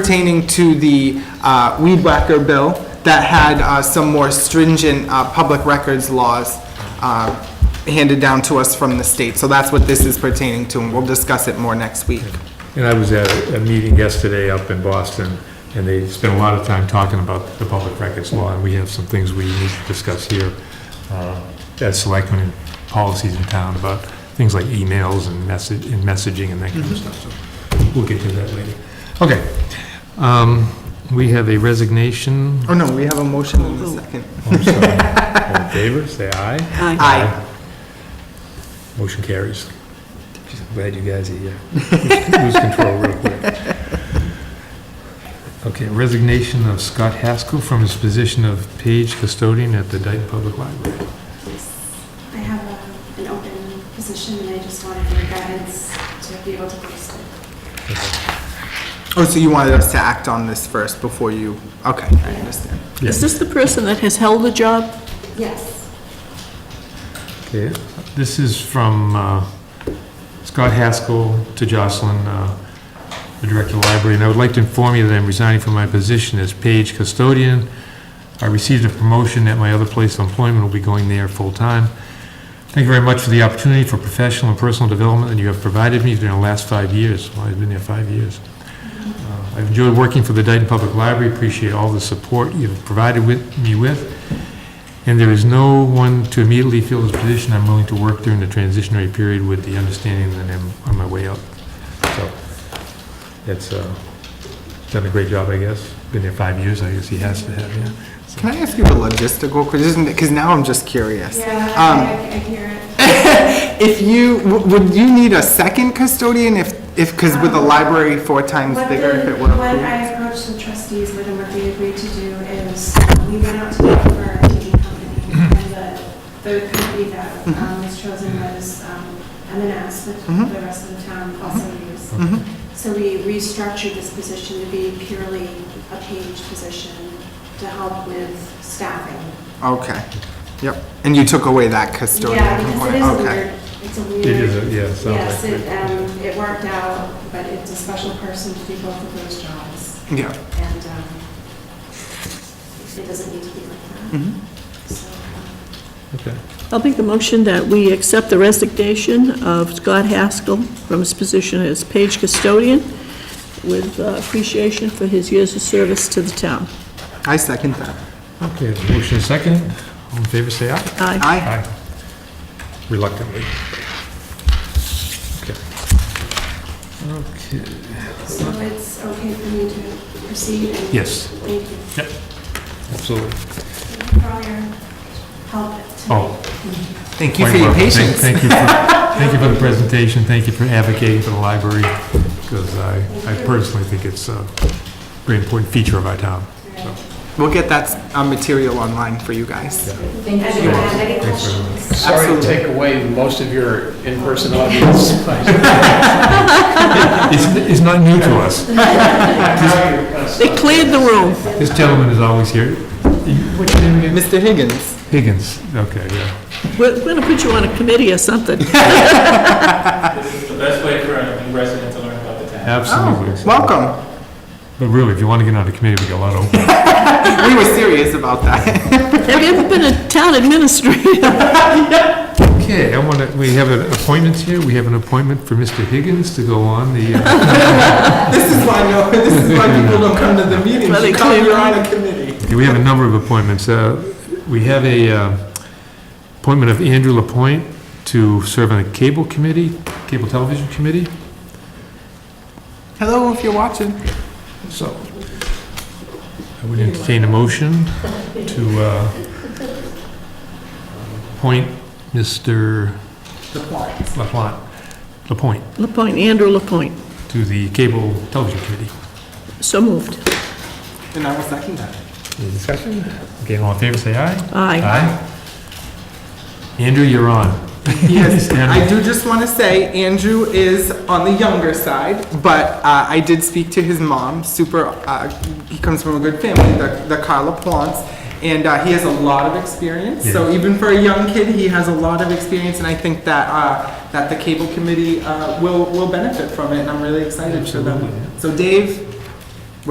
pertaining to the uh, weed whacker bill that had uh, some more stringent uh, public records laws uh, handed down to us from the state. So that's what this is pertaining to, and we'll discuss it more next week. And I was at a meeting yesterday up in Boston, and they spent a lot of time talking about the public records law, and we have some things we need to discuss here uh, as selectmen and policies in town about things like emails and message, and messaging and that kind of stuff, so we'll get to that later. Okay. Um, We have a resignation. Oh, no, we have a motion in a second. I'm sorry. All in favor, say aye. Aye. Aye. Motion carries. Geez, I'm Glad you guys are here. Lose control real quick. Okay, resignation of Scott Haskell from his position of page custodian at the Dayton Public Library. I have a- an open position and I just wanted your guidance to be able to post it. Oh, so you wanted us to act on this first before you, okay, I understand. Is this the person that has held the job? Yes. Okay, this is from uh, Scott Haskell to Jocelyn, uh, the Director of the Library, and I would like to inform you that I'm resigning from my position as page custodian. I received a promotion at my other place of employment, will be going there full-time. Thank you very much for the opportunity for professional and personal development that you have provided me during the last five years. Well, I've been there five years. Uh, I've enjoyed working for the Dayton Public Library, appreciate all the support you've provided with, me with, and there is no one to immediately fill this position. I'm willing to work during the transitionary period with the understanding that I'm on my way up. So it's, uh, done a great job, I guess. Been there five years, I guess he has to have, yeah. Can I ask you a logistical question? Because now I'm just curious. Yeah, Um, I I hear it. If you, w- would you need a second custodian if, if, because with a library four times What bigger, if the- it were When approved? I approached the trustees with and what they agreed to do is um, we went out to bid for our TV company Mm-hmm. and the, the company that um, was chosen was um, M and S, which Mhm. the rest of the town also used. Mhm. So we restructured this position to be purely a page position to help with staffing. Okay, yep. And you took away that custodial Yeah, because it component, is a okay. weird, it's a It weird. is, a- yeah, it Yes, sounds like. it, um, it worked out, but it's a special person to do both of those jobs, Yeah, and, um, it doesn't need to be like that. Mm-hmm. So, um, Okay. I'll make the motion that we accept the resignation of Scott Haskell from his position as page custodian with uh, appreciation for his years of service to the town. I second that. Okay, the motion is second. All in favor, say aye. Aye. Aye. Reluctantly. Okay. Okay. So it's okay for me to proceed? and- Yes. Thank you Yep. Absolutely. for all your help tonight. Oh. Thank you for your quite welcome. patience. Thank thank you, for- thank you for the presentation, thank you for advocating for the library, because I, I personally think it's a very important feature of our town. so. We'll get that uh, material online for you guys. And if you have any Thanks very much. questions? Sorry to Absolutely. take away most of your in-person audience. It's, it's not new to us. They cleared the room. This gentleman is always here. What's your name again? Mr. Higgins, Higgins, okay, yeah. We're going to put you on a committee or something. This is the best way for a new resident to learn about the town. Oh, Absolutely. welcome. But really, if you want to get on the committee, we got a lot open. We were serious about that. Have you ever been a town administrator? Okay, I want to, we have an appointment here. We have an appointment for Mr. Higgins to go on the, uh, This is why, no, this is why people don't come to the meetings. Well, they You come, clear you're on out. a committee. Okay, we have a number of appointments. Uh, We have a uh, appointment of Andrew Lapointe to serve on the Cable Committee, Cable Television Committee. Hello, if you're watching. So I would entertain a motion to uh, appoint Mr. Lapointe, Lapointe LaPointe, Andrew LaPointe. to the Cable Television Committee. So moved. And I will second that. Any discussion? Okay, all in favor, say aye. Aye. Andrew, you're on. Yes, Andrew. I do just want to say, Andrew is on the younger side, but uh, I did speak to his mom, super, uh, he comes from a good family, the the Carla Plants, and uh, he has a lot of experience, so Yes. even for a young kid, he has a lot of experience, and I think that, uh, that the cable committee uh, will, will benefit from it, and I'm really excited for them. So Dave,